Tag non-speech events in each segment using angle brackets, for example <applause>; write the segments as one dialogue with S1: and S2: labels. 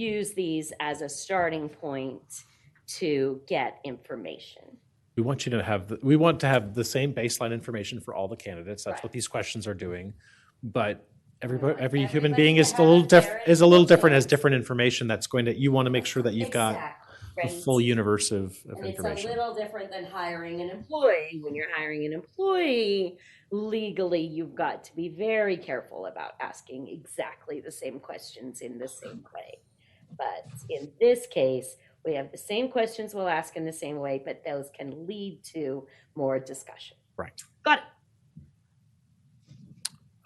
S1: use these as a starting point to get information.
S2: We want you to have, the- we want to have the same baseline information for all the candidates. That's
S1: Right.
S2: what these questions are doing. But
S1: want
S2: everybody, every human
S1: everybody
S2: being
S1: to
S2: is a
S1: have
S2: little diff,
S1: their
S2: is a little
S1: individual-
S2: different, has different information that's going to, you want to make sure that you've got
S1: Exactly,
S2: a
S1: right?
S2: full universe of, of
S1: And it's a
S2: information.
S1: little different than hiring an employee. When you're hiring an employee, legally, you've got to be very careful about asking exactly the same questions in the same way. But in this case, we have the same questions we'll ask in the same way, but those can lead to more discussion.
S2: Right.
S1: Got it.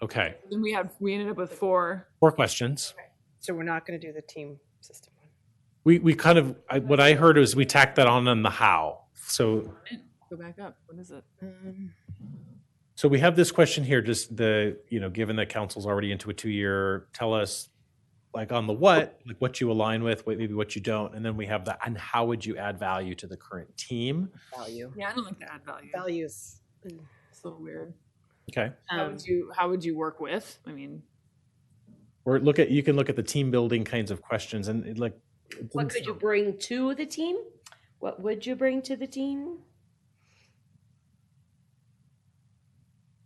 S2: Okay,
S3: Then we had, we ended up with four.
S2: four questions.
S4: So we're not going to do the team system one.
S2: We, we kind of, I- what I heard is we tacked that on on the how. So
S3: Go back up. What is it?
S2: So we have this question here, just the, you know, given that council's already into a two-year, tell us, like, on the what, like, what you align with, what maybe what you don't, and then we have the, and how would you add value to the current team?
S4: Value.
S3: Yeah, I don't like to add value.
S4: Values. Mm.
S3: It's a little weird.
S2: Okay,
S3: How
S4: Um,
S3: would you, how would you work with? I mean,
S2: or look at, you can look at the team building kinds of questions and it, like. it
S1: What
S2: didn't
S1: could you
S2: sound-
S1: bring to the team? What would you bring to the team?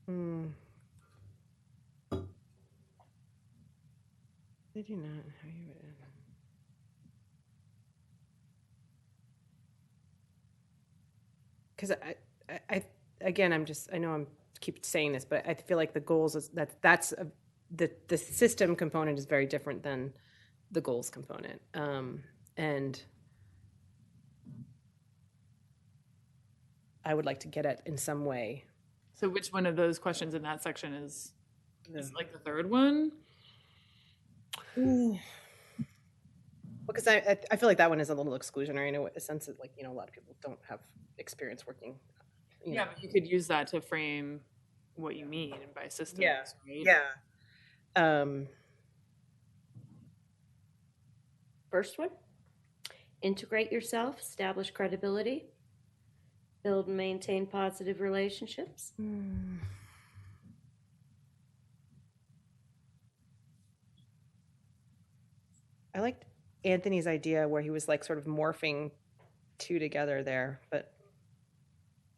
S4: hmm. I do not know how you would. add them. Cause I, I, I, again, I'm just, I know I'm keep saying this, but I feel like the goals is that, that's, a- the, the system component is very different than the goals component. Um, and I would like to get at in some way.
S3: so which one of those questions in that section is, is like the third one?
S4: Well, because I, I- I feel like that one is a little exclusionary in a, way- a sense that like, you know, a lot of people don't have experience working. you
S3: Yeah,
S4: know.
S3: but you could use that to frame what you mean by systems,
S4: Yeah,
S3: right?
S4: Yeah. Um,
S1: First one, integrate yourself, establish credibility, build and maintain positive relationships.
S4: mm, I liked Anthony's idea where he was like sort of morphing two together there, but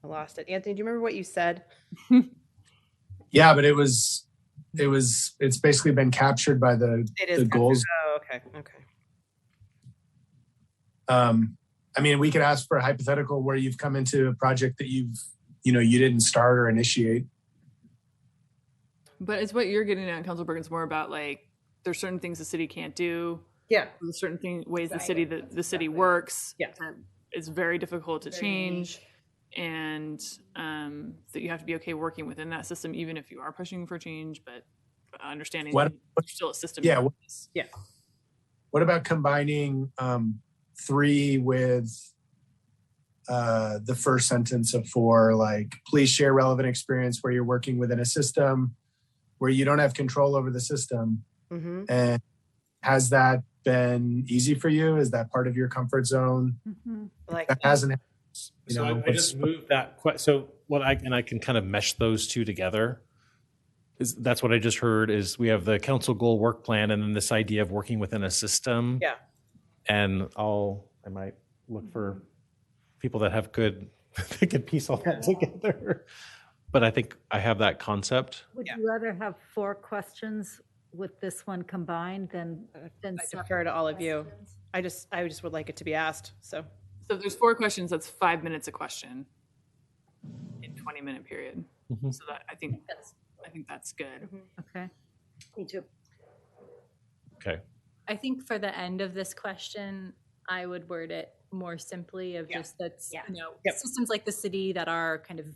S4: I lost it. Anthony, do you remember what you said?
S5: Yeah, but it was, it was, it's basically been captured by the,
S4: It
S5: the goals.
S4: Oh, okay. Okay.
S5: Um, I mean, we could ask for a hypothetical where you've come into a project that you've, you know, you didn't start or initiate.
S3: But it's what you're getting at, Council Bergen's more about like, there's certain things the city can't do.
S4: Yeah.
S3: There's certain thing, ways the
S4: Right.
S3: city, that the city
S4: Exactly.
S3: works.
S4: Yeah.
S3: that It's very difficult to
S4: Very
S3: change. and um, that you have to be okay working within that system, even if you are pushing for change, but understanding
S5: What-
S3: that you're still a system.
S5: Yeah, what-
S3: is-
S5: What about combining um, three with uh, the first sentence of four? Like, please share relevant experience where you're working within a system where you don't have control over the system.
S4: Mm-hmm.
S5: And has that been easy for you? Is that part of your comfort zone? <laughs>
S4: Like
S5: That hasn't. happened, You
S2: So
S5: know,
S2: I- I just moved that, que- so what I, and I can kind of mesh those two together. Is, that's what I just heard is we have the council goal work plan and then this idea of working within a system.
S4: Yeah.
S2: And I'll, I might look for people that have good, <laughs> that can piece all that together. But I think I have that concept.
S6: Would
S4: Yeah.
S6: you rather have four questions with this one combined than, than?
S4: Uh, I
S6: separate
S4: defer to all of you.
S6: questions?
S4: I just, I just would like it to be asked. So
S3: So if there's four questions, that's five minutes a question in 20 minute period.
S2: Mhm.
S3: So that I think that's, I think that's good.
S6: Okay.
S1: Me too.
S2: Okay.
S7: I think for the end of this question, I would word it more simply of
S4: Yeah.
S7: just that's,
S1: Yeah.
S7: you know,
S4: Yep.
S7: systems like the city that are kind of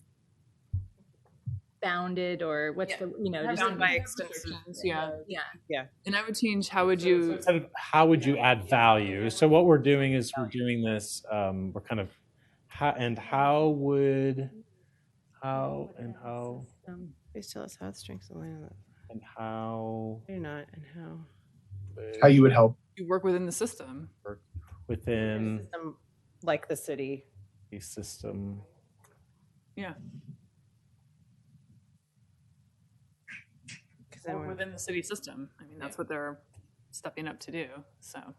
S7: bounded or what's
S4: Yeah.
S7: the, you know, just
S4: Bound by
S7: like-
S4: extensions.
S3: Yeah.
S7: yeah.
S3: And I would change, how would
S2: So
S3: you,
S2: instead of how would you add value? So what we're doing is we're doing this, um, we're kind of, how, and how would, how and how,
S6: Um,
S4: please tell us how the strengths align. on that.
S2: and how
S4: Or not, and how.
S5: how you would help.
S3: you work within the system?
S2: within
S4: System like the city.
S2: the system.
S4: Because
S3: Or within the city system. I mean, that's what they're stepping up to do, so.